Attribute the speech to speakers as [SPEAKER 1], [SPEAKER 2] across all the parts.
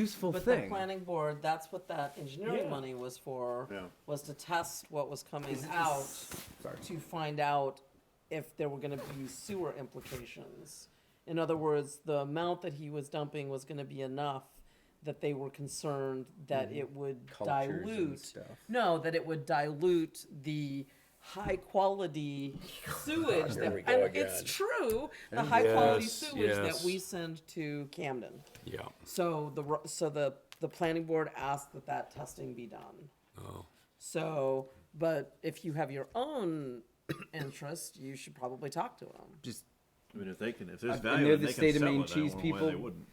[SPEAKER 1] useful
[SPEAKER 2] But the
[SPEAKER 1] thing.
[SPEAKER 2] planning board, that's what that engineering
[SPEAKER 1] Yeah.
[SPEAKER 2] money was for,
[SPEAKER 3] Yeah.
[SPEAKER 2] was to test what was coming out to find out if there were gonna be sewer implications. In other words, the amount that he was dumping was gonna be enough that they were concerned that it would
[SPEAKER 1] Mm-hmm. Cultures and
[SPEAKER 2] dilute.
[SPEAKER 1] stuff.
[SPEAKER 2] No, that it would dilute the high quality sewage
[SPEAKER 4] Here we
[SPEAKER 2] that,
[SPEAKER 4] go
[SPEAKER 2] and it's
[SPEAKER 4] again.
[SPEAKER 2] true, the high quality
[SPEAKER 4] Yes,
[SPEAKER 2] sewage that
[SPEAKER 4] yes.
[SPEAKER 2] we send to Camden.
[SPEAKER 4] Yeah.
[SPEAKER 2] So the ro- so the the planning board asked that that testing be done.
[SPEAKER 4] Oh.
[SPEAKER 2] So, but if you have your own interest, you should probably talk to them.
[SPEAKER 1] Just
[SPEAKER 3] I mean, if they can, if there's
[SPEAKER 1] I
[SPEAKER 3] value,
[SPEAKER 1] know
[SPEAKER 3] in it,
[SPEAKER 1] the
[SPEAKER 3] they
[SPEAKER 1] state
[SPEAKER 3] can
[SPEAKER 1] of
[SPEAKER 3] sell
[SPEAKER 1] Maine
[SPEAKER 3] it. I
[SPEAKER 1] cheese
[SPEAKER 3] don't know why they
[SPEAKER 1] people-
[SPEAKER 3] wouldn't.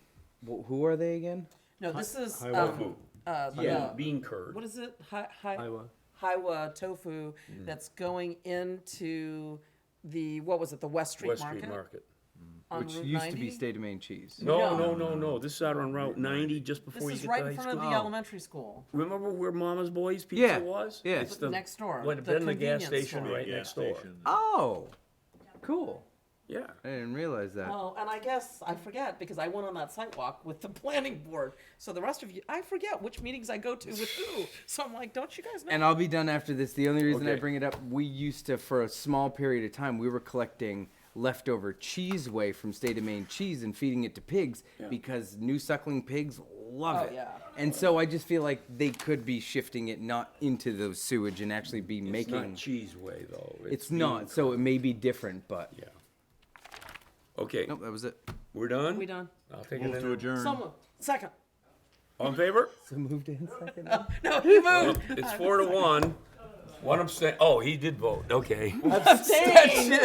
[SPEAKER 1] wh- who are they again?
[SPEAKER 2] No, this is
[SPEAKER 4] Hiwa
[SPEAKER 2] um,
[SPEAKER 4] food.
[SPEAKER 2] uh,
[SPEAKER 4] Yeah.
[SPEAKER 2] the-
[SPEAKER 4] Bean curd.
[SPEAKER 2] what is it? Hi, hi,
[SPEAKER 5] Hiwa.
[SPEAKER 2] Hiwa tofu
[SPEAKER 1] Mm-hmm.
[SPEAKER 2] that's going into the what was it? The West Street
[SPEAKER 4] West
[SPEAKER 2] Market
[SPEAKER 4] Street Market.
[SPEAKER 2] on
[SPEAKER 1] Which
[SPEAKER 2] Route
[SPEAKER 1] used
[SPEAKER 2] 90?
[SPEAKER 1] to be state of Maine cheese.
[SPEAKER 4] No, no, no, no. This is out on Route 90, just
[SPEAKER 2] This
[SPEAKER 4] before you
[SPEAKER 2] is
[SPEAKER 4] get
[SPEAKER 2] right
[SPEAKER 4] to
[SPEAKER 2] in
[SPEAKER 4] high
[SPEAKER 2] front of
[SPEAKER 4] school.
[SPEAKER 2] the elementary school.
[SPEAKER 4] Remember where Mama's Boys Pizza
[SPEAKER 1] Yeah,
[SPEAKER 4] was?
[SPEAKER 1] yeah.
[SPEAKER 4] It's the
[SPEAKER 2] Next door,
[SPEAKER 4] What had
[SPEAKER 2] the
[SPEAKER 4] been the gas
[SPEAKER 2] convenience
[SPEAKER 4] station
[SPEAKER 2] store.
[SPEAKER 4] right
[SPEAKER 3] Gas
[SPEAKER 4] next door.
[SPEAKER 3] station.
[SPEAKER 1] Oh, cool.
[SPEAKER 4] Yeah.
[SPEAKER 1] I didn't realize that.
[SPEAKER 2] Well, and I guess I forget because I went on that site walk with the planning board. So the rest of you, I forget which meetings I go to with who. So I'm like, don't you guys know?
[SPEAKER 1] and I'll be done after this. The only reason I
[SPEAKER 4] Okay.
[SPEAKER 1] bring it up, we used to, for a small period of time, we were collecting leftover cheese whey from state of Maine cheese and feeding it to pigs because new suckling pigs love
[SPEAKER 2] Oh,
[SPEAKER 1] it.
[SPEAKER 2] yeah.
[SPEAKER 1] And so I just feel like they could be shifting it not into the sewage and actually be
[SPEAKER 4] It's
[SPEAKER 1] making.
[SPEAKER 4] not Cheese Way, though.
[SPEAKER 1] it's
[SPEAKER 4] bean
[SPEAKER 1] not, so it may be different, but.
[SPEAKER 4] curd. Yeah. Okay,
[SPEAKER 1] Nope, that was it.
[SPEAKER 4] we're done?
[SPEAKER 2] we done.
[SPEAKER 4] I'll take it
[SPEAKER 3] Move to
[SPEAKER 4] in.
[SPEAKER 3] adjourn.
[SPEAKER 2] Someone second.
[SPEAKER 4] All in favor?
[SPEAKER 1] So moved in second.
[SPEAKER 2] No, he moved.
[SPEAKER 4] It's four to one. One abstain, oh, he did vote, okay.
[SPEAKER 2] Abstained.